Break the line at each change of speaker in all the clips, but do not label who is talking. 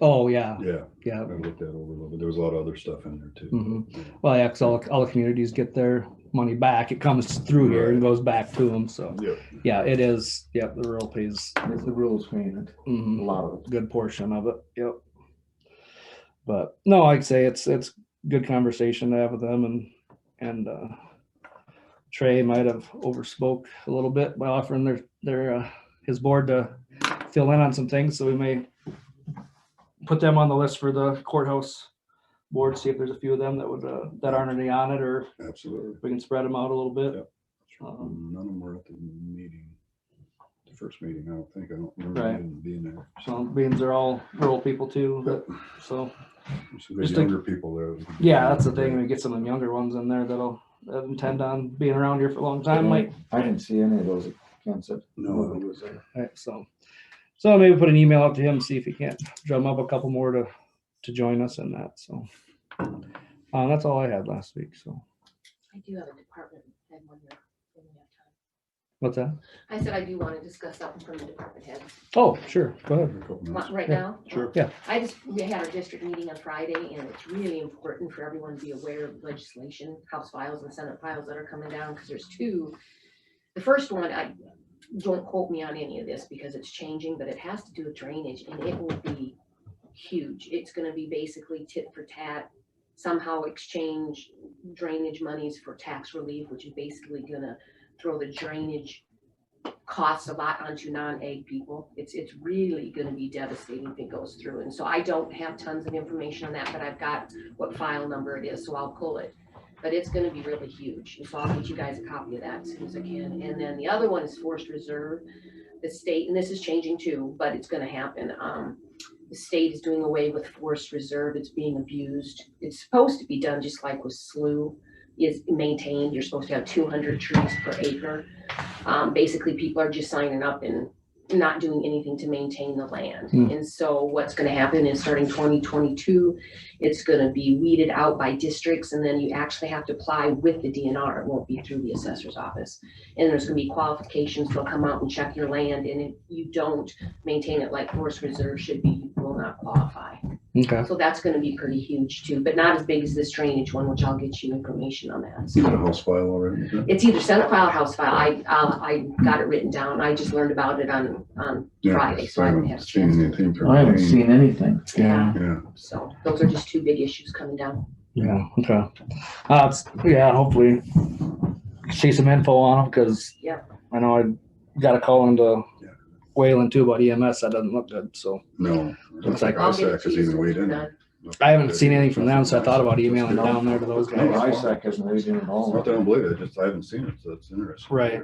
Oh, yeah,
Yeah,
yeah.
I looked that over a little bit. There was a lot of other stuff in there too.
Mhm. Well, yeah, 'cause all, all the communities get their money back. It comes through here and goes back to them. So,
Yeah,
yeah, it is. Yep, the rural pays
It's the rules payment, a
mhm,
lot of it.
a good portion of it. Yep. But no, I'd say it's, it's good conversation to have with them and, and, uh, Trey might have overspoke a little bit by offering their, their, uh, his board to fill in on some things. So we may put them on the list for the courthouse board, see if there's a few of them that would, uh, that aren't already on it or
absolutely.
we can spread them out a little bit.
Yep.
Uh-huh.
None of them were at the meeting, the first meeting, I don't think. I don't remember
Right.
them being there.
So beans are all rural people too, but- so,
There's Some good
Just think-
younger people there.
yeah, that's the thing. We get some of the younger ones in there that'll that intend on being around here for a long time, like,
I didn't see any of those concepts.
No,
Nobody was there.
right, so. So maybe put an email out to him, see if he can't drum up a couple more to, to join us in that, so. Uh, that's all I had last week, so,
I do have a department head one year. when we have time.
what's that?
I said I do want to discuss something from the department head.
Oh, sure, go ahead.
every couple
Want-
minutes.
Right
Yeah,
now?
sure.
Yeah.
I just, we had our district meeting on Friday and it's really important for everyone to be aware of legislation, House files and Senate files that are coming down because there's two. The first one, I, don't quote me on any of this because it's changing, but it has to do with drainage and it will be huge. It's gonna be basically tit for tat. Somehow exchange drainage monies for tax relief, which is basically gonna throw the drainage costs a lot onto non-ag people. It's, it's really gonna be devastating if it goes through. And so I don't have tons of information on that, but I've got what file number it is, so I'll pull it. But it's gonna be really huge. And so I'll get you guys a copy of that as soon as I can. And then the other one is forced reserve. The state, and this is changing too, but it's gonna happen. Um, the state is doing away with forced reserve. It's being abused. It's supposed to be done just like with SLU is maintained. You're supposed to have two hundred trees per acre um, basically people are just signing up and not doing anything to maintain the land.
Hmm.
And so what's gonna happen is starting twenty twenty-two, it's gonna be weeded out by districts and then you actually have to apply with the DNR. It won't be through the assessor's office. And there's gonna be qualifications. They'll come out and check your land and if you don't maintain it like forest reserve should be, you will not qualify.
Okay,
So that's gonna be pretty huge too, but not as big as this drainage one, which I'll get you information on that.
You
So-
got a house file already?
it's either Senate file or House file. I, uh, I got it written down. I just learned about it on, on
Yeah,
Friday, so I haven't had a
seen
chance.
anything from
I haven't
Wayne.
seen anything.
yeah,
Yeah,
So those are just two big issues coming down.
yeah, okay. Uh, it's- yeah, hopefully see some info on them, cause
Yep.
I know I got a call into
Yeah.
Wayland too about EMS. That doesn't look good, so.
no.
Looks like-
I'll get it to
Because
you
even
soon.
weighed in.
Done.
I haven't seen anything from them, so I thought about emailing down there to those
No,
guys.
ISAC isn't raising at all.
Not that I don't believe it, just I haven't seen it, so that's interesting.
Right.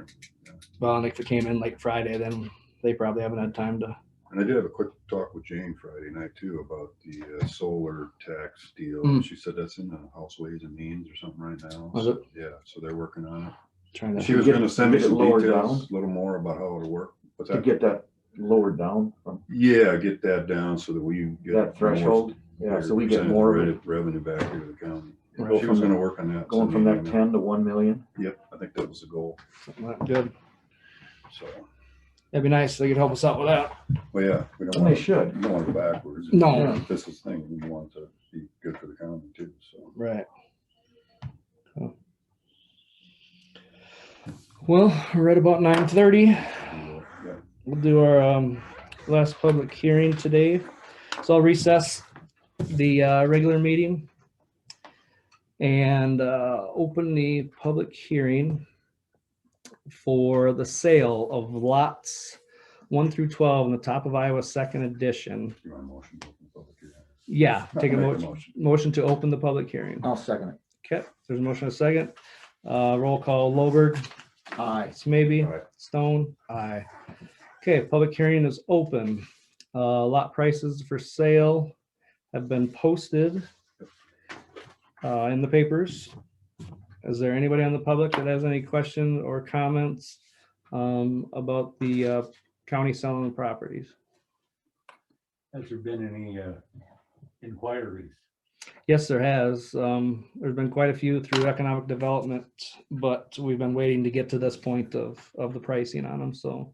Well, and if it came in like Friday, then they probably haven't had time to.
And I did have a quick talk with Jane Friday night too about the uh, solar tax deal.
Hmm.
Mm.
She said that's in the House Ways and Means or something right now.
Was it?
Yeah, so they're working on it.
Trying to.
She was
get-
gonna send me
get it
some
lower
details, a little more about how it'll work. What's
To
that?
get that lowered down from
Yeah, get that down so that we. get more-
that threshold, yeah, so we get
percentage
more of it,
re- Revenue back here to the county.
Right.
She was gonna work on that.
going from
Sunday
that
evening.
ten to one million.
Yep, I think that was the goal,
something like that. Good.
so,
That'd be nice. if They could help us out with that.
well, yeah, we don't
And they
want,
should.
we don't want to go backwards.
No.
This is the thing, we want to be good for the county too, so.
Right. Well, right about nine thirty,
Yeah.
we'll do our um, last public hearing today. So I'll recess the uh, regular meeting and uh, open the public hearing for the sale of lots one through twelve in the top of Iowa Second Edition.
You want a motion to open the public hearing?
Yeah, take a
Make
motion, motion to open the public hearing.
I'll second it.
Okay, there's a motion and a second. Uh, roll call, Lowberg,
Aye.
maybe
Aye.
Stone, aye. Okay, public hearing is open. Uh, lot prices for sale have been posted uh, in the papers. Is there anybody on the public that has any questions or comments um, about the uh, county selling the properties?
Has there been any uh, inquiries?
Yes, there has. Um, there's been quite a few through economic development, but we've been waiting to get to this point of, of the pricing on them, so.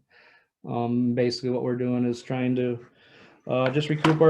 Um, basically what we're doing is trying to, uh, just recoup our.